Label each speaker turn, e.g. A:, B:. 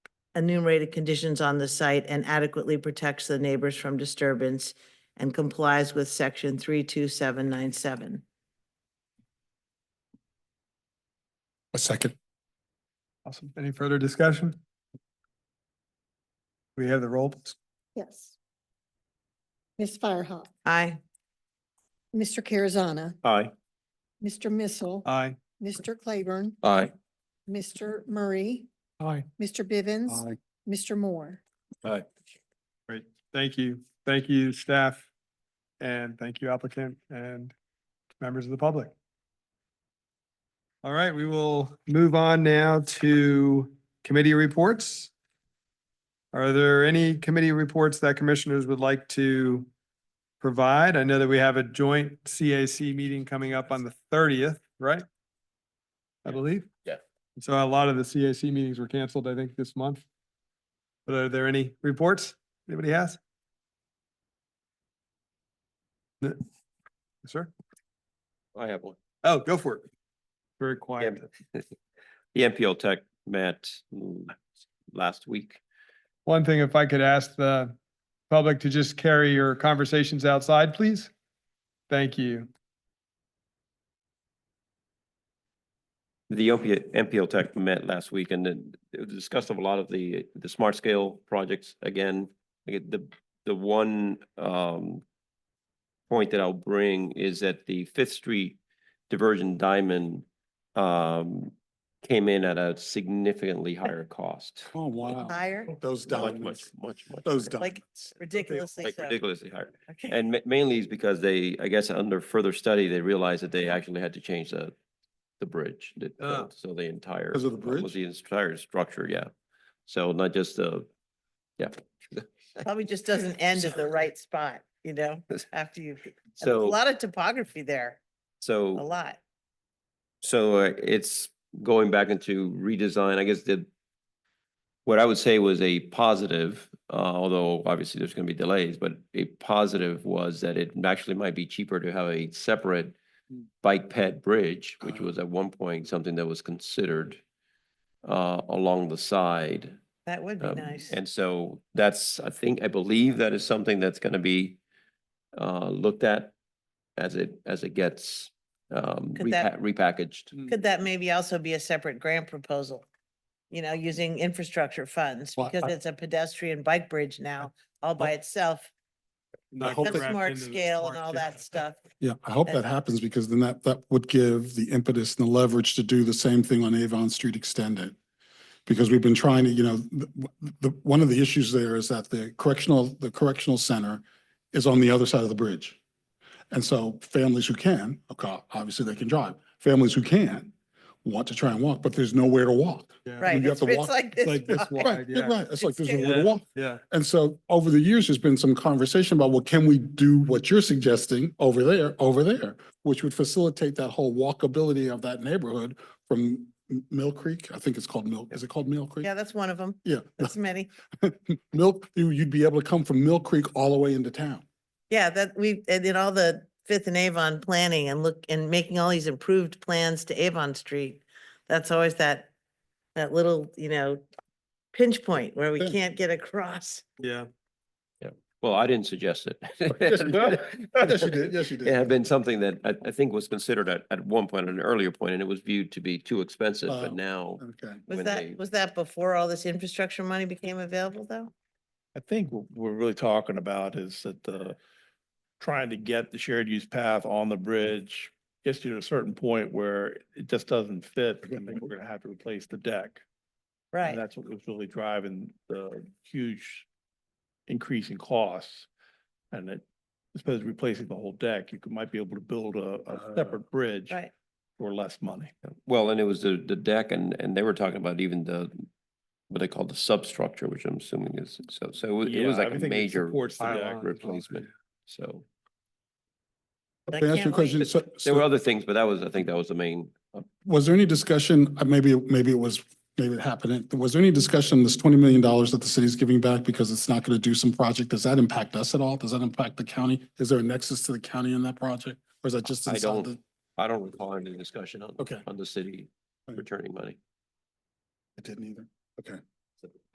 A: enumerated conditions on the site and adequately protects the neighbors from disturbance and complies with section three two seven nine seven.
B: A second.
C: Awesome. Any further discussion? We have the roll. please.
D: Yes. Ms. Firehawk,
A: Aye.
D: Mr. Carazana,
E: Aye.
D: Mr. Missile,
B: Uh,
C: Aye.
D: Mr. Claiborne,
B: Aye.
D: Mr. Murray,
C: Aye.
D: Mr. Bivens,
B: Aye.
D: Mr. Moore.
B: Aye.
C: Great. Thank you. Thank you, staff. And thank you applicant and members of the public. All right, we will move on now to committee reports. Are there any committee reports that commissioners would like to provide? I know that we have a joint CAC meeting coming up on the thirtieth, right? I
B: Yeah.
C: believe.
B: Yeah.
C: So a lot of the CAC meetings were canceled, I think, this month. But are there any reports anybody has? No. Sir?
E: I have one.
C: Oh, go for it. Very quiet.
E: The MPO Tech met mm, last week.
C: One thing, if I could ask the public to just carry your conversations outside, please. Thank you.
E: The opiate MPO Tech met last week and then it discussed of a lot of the, the smart scale projects again. I get The, the one um point that I'll bring is that the Fifth Street diversion diamond um came in at a significantly higher cost.
B: Oh, wow.
A: Higher,
B: Those
E: Much, much,
B: diamonds.
E: much, much.
B: Those
E: higher.
A: like
B: diamonds.
A: ridiculously
E: Like
A: so.
E: ridiculously higher.
A: Okay.
E: And ma- mainly is because they, I guess, under further study, they realized that they actually had to change the, the bridge. the- the-
C: Ah.
E: So the entire.
B: Because of the bridge?
E: almost The entire structure, yeah. So not just the, yeah.
A: Probably just doesn't end at the right spot, you know, after you, a
E: So,
A: lot of topography there, a
E: so,
A: lot.
E: so uh, it's going back into redesign, I guess the, what I would say was a positive, uh, although obviously there's going to be delays, but a positive was that it actually might be cheaper to have a separate
A: Hmm.
E: bike pad bridge, which
A: Uh-huh.
B: Ah.
E: was at one point something that was considered uh, along the side.
A: That would be
E: Um,
A: nice.
E: And so that's, I think, I believe that is something that's going to be uh, looked at as it, as it gets um,
A: Could that-
E: repa- repackaged.
A: Could that maybe also be a separate grant proposal? You know, using infrastructure funds
B: Well,
A: because
B: I-
A: it's a pedestrian bike bridge now all by itself.
C: Not
B: hope
A: That's
B: that-
C: wrapped
A: smart
C: into the
A: scale and
C: smart
A: all
C: scale.
A: that stuff.
B: Yeah, I hope that happens because then that, that would give the impetus and the leverage to do the same thing on Avon Street Extended. Because we've been trying to, you know, the, the, one of the issues there is that the correctional, the correctional center is on the other side of the bridge. And so families who can, okay, obviously they can drive, families who can want to try and walk, but there's nowhere to walk.
C: Yeah.
A: Right.
B: you have
A: It's
B: to
A: it's
B: walk
A: like this.
C: like this
A: wide.
C: wide.
B: Right, yeah,
C: yeah.
B: right. It's like there's
A: It's-
B: nowhere to walk.
C: Yeah,
B: And so over the years, there's been some conversation about, well, can we do what you're suggesting over there, over there? Which would facilitate that whole walkability of that neighborhood from M- Mill Creek, I think it's called Mill, is it called Mill Creek?
A: Yeah, that's one of them.
B: Yeah,
A: That's many.
B: Mill, you- you'd be able to come from Mill Creek all the way into town.
A: Yeah, that we, and did all the Fifth and Avon planning and look, and making all these improved plans to Avon Street. That's always that, that little, you know, pinch point where we
B: Yeah.
A: can't get across.
C: yeah.
E: Well, I didn't suggest it.
B: Oh, Yes, you did. Yes, you did, yes, you
E: It had
B: did.
E: been something that I, I think was considered at, at one point, an earlier point, and it was viewed to be too expensive, but
B: Wow.
E: now.
B: Okay.
A: Was
E: when they-
A: that, was that before all this infrastructure money became available though?
F: I think what we're really talking about is that the, trying to get the shared use path on the bridge gets you to a certain point where it just doesn't fit. I think we're gonna have to replace the deck.
A: Right.
F: And that's what was really driving the huge increase in costs. And it, as opposed to replacing the whole deck, you could, might be able to build a, a separate bridge
A: Uh, Right.
F: for less money.
E: Well, and it was the, the deck and, and they were talking about even the, what they call the substructure, which I'm assuming is, so, so it was- it
F: Yeah,
E: was like a
F: everything that
E: major
F: supports the deck.
C: pylons.
E: replacement, so.
A: I
B: Can I ask you a
A: can't
B: question?
A: wait.
B: So-
E: There were
B: so
E: other things, but that was, I think that was the main, uh,
B: Was there any discussion, uh, maybe, maybe it was, maybe it happened, was there any discussion, this twenty million dollars that the city's giving back because it's not gonna do some project, does that impact us at all? Does that impact the county? Is there a nexus to the county in that project? Or is that just
E: I
B: inside
E: don't-
B: the?
E: I don't recall any discussion on,
B: Okay,
E: on the city
B: Right.
E: returning money.
B: I didn't either.